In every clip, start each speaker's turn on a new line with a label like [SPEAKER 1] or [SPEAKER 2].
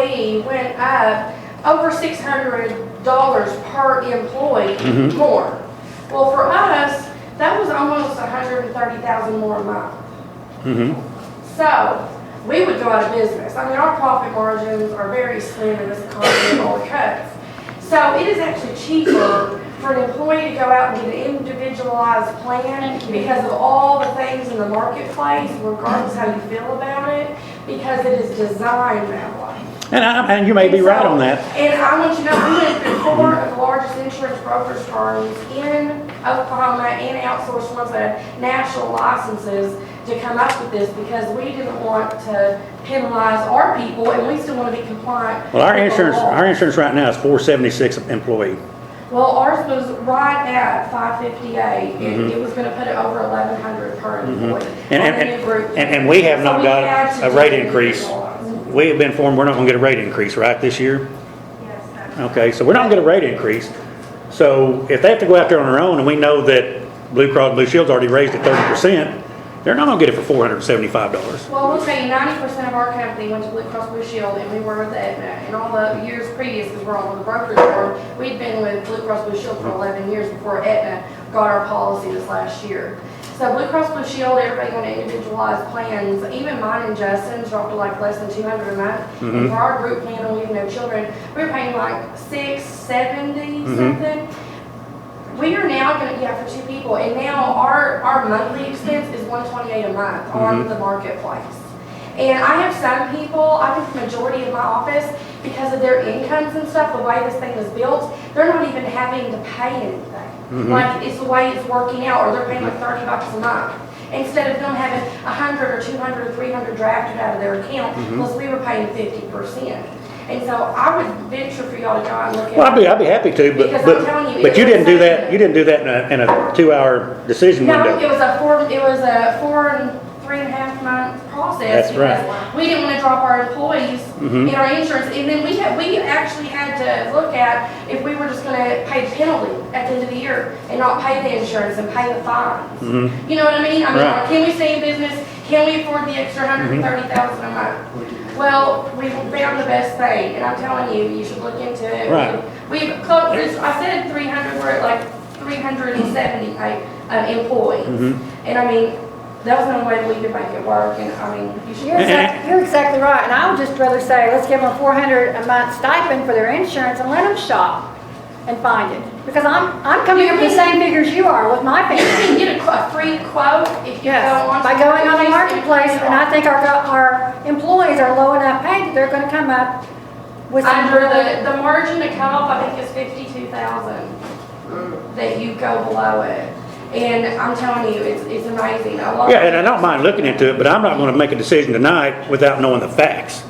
[SPEAKER 1] fee went up over six hundred dollars per employee
[SPEAKER 2] Mhm.
[SPEAKER 1] more. Well, for us, that was almost $130,000 more a month.
[SPEAKER 2] Mm-hmm.
[SPEAKER 1] So, we would go out of business. I mean, our profit margins are very slim in this economy of all cuts. So it is actually cheaper for an employee to go out and get an individualized plan because of all the things in the marketplace, regardless how you feel about it, because it is designed that way.
[SPEAKER 2] And I, and you may be right on that.
[SPEAKER 1] And I want you to know, we went through four of the largest insurance brokerage firms in Oklahoma and outsourced ones that have national licenses to come up with this because we didn't want to penalize our people and we still want to be compliant.
[SPEAKER 2] Well, our
[SPEAKER 1] with the
[SPEAKER 2] insurance,
[SPEAKER 1] law.
[SPEAKER 2] our insurance right now is four seventy-six employee.
[SPEAKER 1] Well, ours was right at five fifty-eight, and it was gonna put it over eleven hundred per employee.
[SPEAKER 2] Mm-hmm. And- and-
[SPEAKER 1] on the new group.
[SPEAKER 2] and- and we have
[SPEAKER 1] So
[SPEAKER 2] not
[SPEAKER 1] we
[SPEAKER 2] got
[SPEAKER 1] had to
[SPEAKER 2] a rate
[SPEAKER 1] do
[SPEAKER 2] increase.
[SPEAKER 1] individualized.
[SPEAKER 2] We have been informed we're not gonna get a rate increase, right, this year? Okay, so we're not gonna get a rate increase. So if they have to go out there on their own and we know that Blue Cross Blue Shield's already raised it thirty percent, they're not gonna get it for four hundred and seventy-five dollars.
[SPEAKER 1] Well, we'll tell you, ninety percent of our company went to Blue Cross Blue Shield, and we were with Aetna. And all the years previous, because we're on the brokerage firm, we'd been with Blue Cross Blue Shield for eleven years before Aetna got our policy this last year. So Blue Cross Blue Shield, everybody on individualized plans, even mine and Justin's dropped to like less than two hundred a month. And for our group plan, and we even have children, we were paying like six seventy
[SPEAKER 2] Mhm.
[SPEAKER 1] something. We are now gonna, yeah, for two people, and now our, our monthly expense is one twenty-eight a month on the marketplace. And I have some people, I think the majority of my office, because of their incomes and stuff, the way this thing is built, they're not even having to pay anything. Like, it's the way it's working out, or they're paying like thirty bucks a month. Instead of them having a hundred or two hundred or three hundred drafted out of their account, plus we were paying fifty percent. And so I would venture for y'all to go out and look at.
[SPEAKER 2] Well, I'd be, I'd be happy to, but,
[SPEAKER 1] Because I'm telling
[SPEAKER 2] but,
[SPEAKER 1] you,
[SPEAKER 2] but
[SPEAKER 1] it
[SPEAKER 2] you didn't do
[SPEAKER 1] was-
[SPEAKER 2] that, you didn't do that in a, in a two-hour decision
[SPEAKER 1] No, it
[SPEAKER 2] window.
[SPEAKER 1] was a four, it was a four and three and a half month process.
[SPEAKER 2] That's right.
[SPEAKER 1] because We didn't want to drop our employees
[SPEAKER 2] Mhm.
[SPEAKER 1] in our insurance, and then we had, we actually had to look at if we were just gonna pay penalty at the end of the year and not pay the insurance and pay the fines.
[SPEAKER 2] Mhm.
[SPEAKER 1] You know what I mean? I mean,
[SPEAKER 2] Right. Mm-hmm.
[SPEAKER 1] like, can we stay in business? Can we afford the extra hundred and thirty thousand a month? Well, we found the best thing, and I'm telling you, you should look into it.
[SPEAKER 2] Right.
[SPEAKER 1] We've closed, this- I said three hundred, we're at like three hundred and seventy, like, um, employees.
[SPEAKER 2] Mhm.
[SPEAKER 1] And I mean, there was no way we could make it work, and I mean, you should.
[SPEAKER 3] You're exactly, you're exactly right, and I would just rather say, let's give them a four hundred a month stipend for their insurance and let them shop and find it. Because I'm, I'm coming up with the same figures you are with my
[SPEAKER 1] You
[SPEAKER 3] family.
[SPEAKER 1] can get a, qu- a free quote if you go on.
[SPEAKER 3] Yes, by going on the marketplace, and I think our, go- our employees are low enough paid that they're gonna come up with some.
[SPEAKER 1] Under the, the margin to cut off, I think is fifty-two thousand that you go below it. And I'm telling you, it's, it's amazing. I love.
[SPEAKER 2] Yeah, and I don't mind looking into it, but I'm not gonna make a decision tonight without knowing the facts.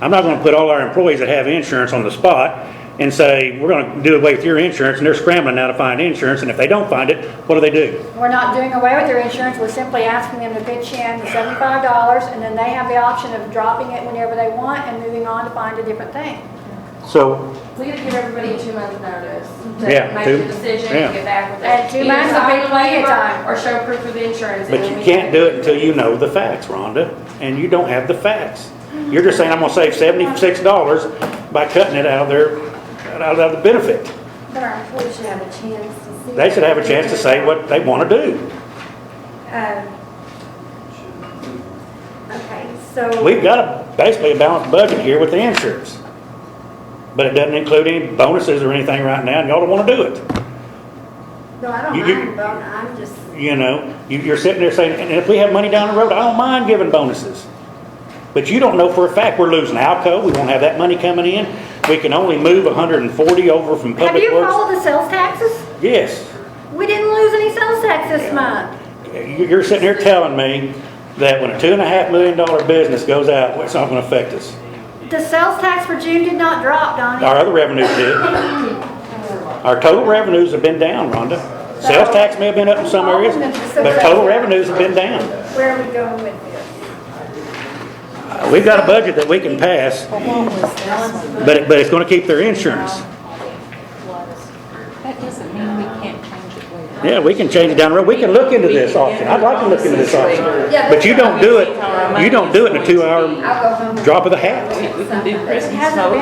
[SPEAKER 2] I'm not gonna put all our employees that have insurance on the spot and say, we're gonna do away with your insurance, and they're scrambling now to find insurance, and if they don't find it, what do they do?
[SPEAKER 3] We're not doing away with their insurance, we're simply asking them to pitch in seventy-five dollars, and then they have the option of dropping it whenever they want and moving on to find a different thing.
[SPEAKER 2] So,
[SPEAKER 1] We gotta give everybody a two-month notice
[SPEAKER 2] Yeah,
[SPEAKER 1] to make
[SPEAKER 2] two-
[SPEAKER 1] the decision
[SPEAKER 2] yeah.
[SPEAKER 1] and get back with it.
[SPEAKER 3] And two
[SPEAKER 1] Either
[SPEAKER 3] months would be
[SPEAKER 1] sign the
[SPEAKER 3] plenty of
[SPEAKER 1] waiver
[SPEAKER 3] time.
[SPEAKER 1] Or show proof of insurance. and
[SPEAKER 2] But
[SPEAKER 1] then
[SPEAKER 2] you
[SPEAKER 1] we-
[SPEAKER 2] can't do it until you know the facts, Rhonda, and you don't have the facts. You're just saying, I'm gonna save seventy-six dollars by cutting it out of their, out of the benefit.
[SPEAKER 4] But our employees should have a chance to see.
[SPEAKER 2] They should have a chance to say what they wanna do.
[SPEAKER 4] Um, Okay, so.
[SPEAKER 2] We've got a, basically a balanced budget here with the insurance. But it doesn't include any bonuses or anything right now, and y'all don't wanna do it.
[SPEAKER 4] No, I don't
[SPEAKER 2] you- you-
[SPEAKER 4] mind, but I'm just,
[SPEAKER 2] You know, you, you're sitting there saying, and if we have money down the road, I don't mind giving bonuses. But you don't know for a fact, we're losing Alco, we won't have that money coming in. We can only move hundred and forty over from
[SPEAKER 3] Have
[SPEAKER 2] public
[SPEAKER 3] you
[SPEAKER 2] works.
[SPEAKER 3] followed the sales taxes?
[SPEAKER 2] Yes.
[SPEAKER 3] We didn't lose any sales tax this month.
[SPEAKER 2] You- You're sitting here telling me that when a two and a half million dollar business goes out, it's not gonna affect us.
[SPEAKER 3] The sales tax for June did not drop, Donnie.
[SPEAKER 2] Our other revenues did. Our total revenues have been down, Rhonda. Sales tax may have been up in some areas, but total revenues have been down.
[SPEAKER 4] where are we going with this?
[SPEAKER 2] Uh, We've got a budget that we can pass, but, it- but it's gonna keep their insurance.
[SPEAKER 5] That doesn't mean we can't change it later.
[SPEAKER 2] Yeah, we can change it down the road. We can look into this option. I'd like to look into this option.
[SPEAKER 1] Yeah,
[SPEAKER 2] But you don't do it, you don't do it in a two-hour
[SPEAKER 1] I'll go home.
[SPEAKER 2] drop of the hat.
[SPEAKER 5] We we can do Christmas
[SPEAKER 3] hasn't
[SPEAKER 5] mode.